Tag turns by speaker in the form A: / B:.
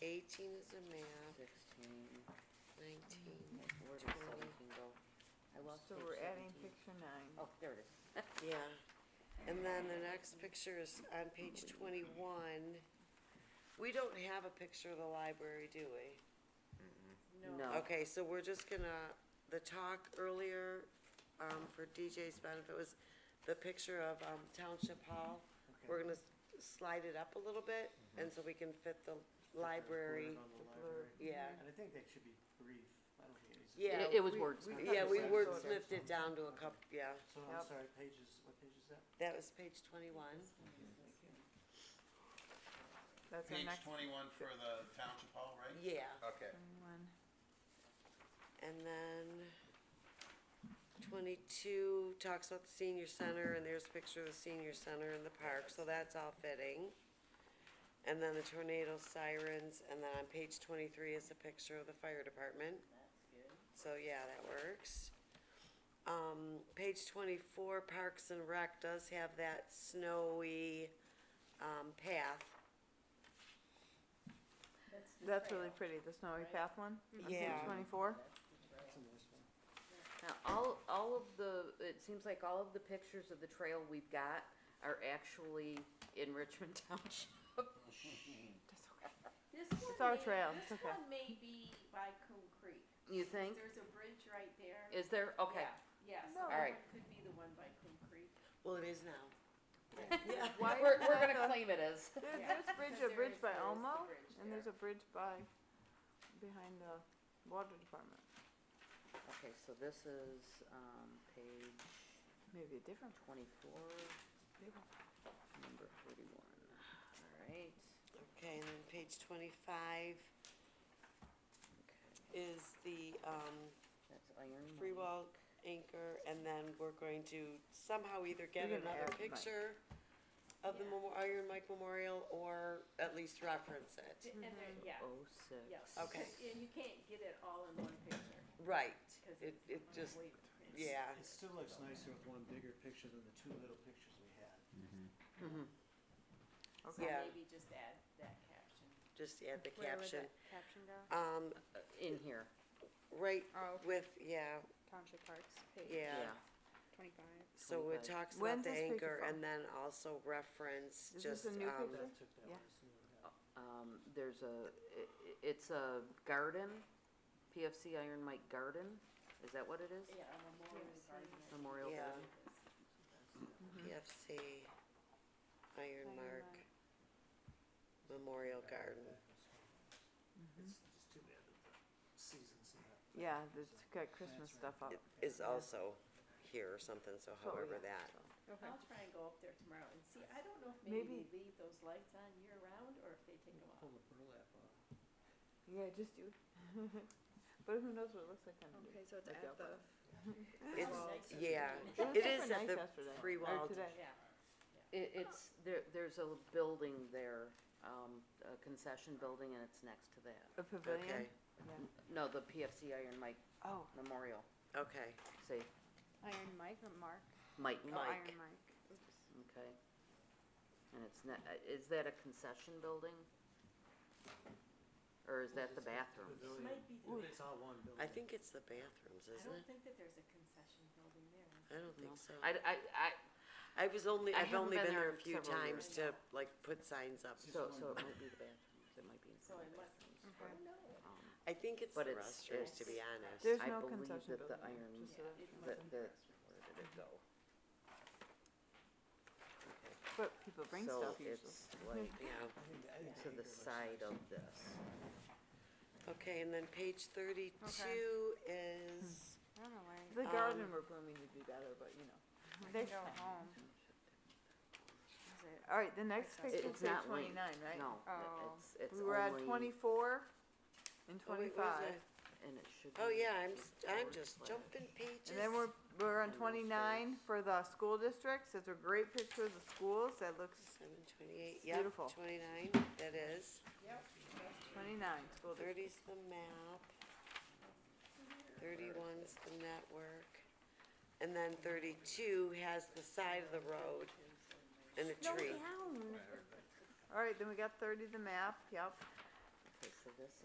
A: Eighteen is a math,
B: sixteen,
A: nineteen,
B: where does
A: Twenty.
B: seventeen go? I lost
C: So
B: page
C: we're adding
B: 17.
C: picture nine.
B: Oh, there it is.
A: yeah. And then the next picture is on page twenty-one. We don't have a picture of the library, do we?
B: No.
A: Okay, so we're just gonna, the talk earlier, um, for DJ's benefit was the picture of, um, Township Hall. We're gonna s- slide it up a little bit, and so we can fit the library,
C: The blurb.
A: yeah.
D: And I think that should be brief. I don't think it needs to be-
A: Yeah,
E: It- it was
A: we-
E: wordsmith.
A: we- Yeah, we
D: Yeah.
A: wordsmithed it down to a couple, yeah,
D: So I'm
C: Yep.
D: sorry, pages, what page is that?
A: that was page twenty-one.
C: That's our
F: Page
C: next
F: twenty-one for the township hall, right?
A: Yeah,
F: Okay.
C: one.
A: and then twenty-two talks about the senior center, and there's a picture of the senior center in the park, so that's all fitting. And then the tornado sirens, and then on page twenty-three is a picture of the fire department. So, yeah, that works. Um, page twenty-four, Parks and Rec does have that snowy, um, path.
C: That's really pretty, the snowy path one? on Mm-hmm. page
A: Yeah.
C: Twenty-four?
D: That's a nice one.
E: Now, all, all of the, uh, it seems like all of the pictures of the trail we've got are actually in Richmond Township.
C: That's okay.
G: This
C: It's
G: one
C: our
G: may-
C: trail, it's
G: This
C: okay.
G: one may be by Coon Creek.
E: You think?
G: There's a bridge right there.
E: Is there? Okay.
G: Yeah, so
C: No.
G: that
E: Alright.
G: one could be the one by Coon Creek.
A: Well, it is now.
C: Why
E: We're,
C: is
E: we're
C: that
E: gonna
C: a-
E: claim it as.
C: There,
G: Yeah,
C: there's bridge, a
G: because there
C: bridge
G: is-
C: by
G: there is the
C: Elmo,
G: bridge
C: and there's
G: there.
C: a bridge by, behind the water department.
B: Okay, so this is, um, page
C: Maybe a different,
B: twenty-four,
C: maybe
B: number forty-one.
E: All right.
A: Okay, and then page twenty-five
B: Okay,
A: is the, um,
B: that's iron.
A: free
B: Mountain.
A: will anchor, and then we're going to somehow either get
C: We're gonna
A: another
C: add Mike.
A: picture of the
G: Yeah.
A: Memo- Iron Mike Memorial, or at least reference it.
G: And there, yeah,
B: Oh, six.
G: yeah.
A: Okay.
G: And you can't get it all in one picture,
A: Right,
G: because
A: It-
G: it's.
A: it just-
G: way- it's-
A: yeah,
D: It still looks nicer with one bigger picture than the two little pictures we had.
G: So
C: Okay.
A: Yeah.
G: maybe just add that caption.
A: just add the
E: Where would
A: caption.
E: that Caption go?
A: Um,
B: Uh, In here,
A: right
H: Oh,
A: with, yeah,
H: Township Parks, page
A: yeah,
B: yeah.
H: twenty-five.
A: so it
B: 25.
A: talks about
C: When's
A: the
C: this picture
A: anchor,
C: from?
A: and then also reference
C: Is this
A: just,
C: a new
A: um,
C: picture?
D: That took that
C: Yeah.
D: one, so we had-
B: Um, there's a, i- i- it's a garden, PFC Iron Mike Garden, is that what it is?
G: Yeah, a memorial garden.
B: Memorial
A: Yeah.
B: Garden?
A: PFC, Iron Mark Memorial Garden.
D: It's just too bad that the season's not.
C: Yeah, there's, got Christmas stuff up.
A: It is also here or something, so
C: So,
A: however
C: yeah,
A: that.
C: so.
H: Okay.
G: I'll try and go up there tomorrow and see. I don't know if
C: Maybe-
G: maybe they leave those lights on year round or if they take them off.
D: Pull the burlap off.
C: Yeah, just do, but who knows what it looks like on the.
H: Okay, so it's
C: Like
H: at
C: the-
H: the,
D: Oh.
A: It's,
G: Well,
A: yeah,
C: It
A: it
C: was super
A: is at
C: nice
A: the
C: yesterday,
A: free
C: or
A: wild
C: today.
G: Yeah.
B: It, it's, there, there's a building there, um, a concession building and it's next to that.
C: A
A: Okay,
C: pavilion?
B: No, the PFC Iron Mike
C: Oh,
B: Memorial,
A: okay,
B: say,
H: Iron Mike or Mark?
B: Mike,
H: Oh,
A: Mike.
H: Iron Mike. Oops.
B: okay? And it's ne- uh, is that a concession building? Or is that the
D: It's a
B: bathrooms?
D: pavilion.
G: Might be the-
D: Ooh, It's all one building.
A: I think it's the bathrooms,
G: I
A: isn't
G: don't
A: it?
G: think that there's a concession building
A: I
G: there.
A: don't
B: No.
A: think so.
B: I, I, I,
A: I was only,
B: I
A: I've
B: haven't
A: only
B: been
A: been there a
B: there
A: few
B: several
A: times
G: years.
A: to like put signs up.
D: Just
B: so,
D: one
B: so it
D: building.
B: might be the bathrooms, it might be in
G: So
B: front of
G: it
B: the
G: must-
B: bathrooms.
H: Okay.
G: No.
B: Um,
A: I think it's
B: But
A: the
B: it's-
A: restrooms, to be
B: it's-
A: honest.
C: there's
B: I
C: no
B: believe
C: concession
B: that the
C: building,
B: iron-
C: just so that
G: Yeah,
C: you
G: it
C: know.
B: The,
G: wasn't
B: the,
G: grassroots.
B: where did it go?
C: but people bring stuff usually.
B: So it's like
A: Yeah,
D: I think- I think
B: to
D: anchor
B: the
D: looks
B: side
D: nicer.
B: of this.
A: okay, and then page thirty-two is,
H: I don't know why,
C: The
A: Um,
C: garden we're blooming would be better, but you know.
H: I
C: They
H: can go home.
C: Is it- All right, the next
H: It-
C: page
B: It-
C: is
B: It's
C: page
B: not linked,
C: twenty-nine, right?
B: no, it-
H: Oh.
B: it's, it's
C: We were at
B: only,
C: twenty-four and
A: oh wait, where's
C: twenty-five,
A: that?
B: and it should be.
A: Oh, yeah, I'm, s- I'm
B: forward
A: just
B: slash-
A: jumping pages.
C: and then we're, we're on
B: And those
C: twenty-nine for the school districts, it's a great picture of the schools, that looks
A: Seven twenty-eight,
C: It's
A: yep,
C: beautiful.
A: twenty-nine, that is.
C: twenty-nine, school district.
A: Thirty's the map. Thirty-one's the network. And then thirty-two has the side of the road and a tree.
C: All right, then we got thirty, the map, yep,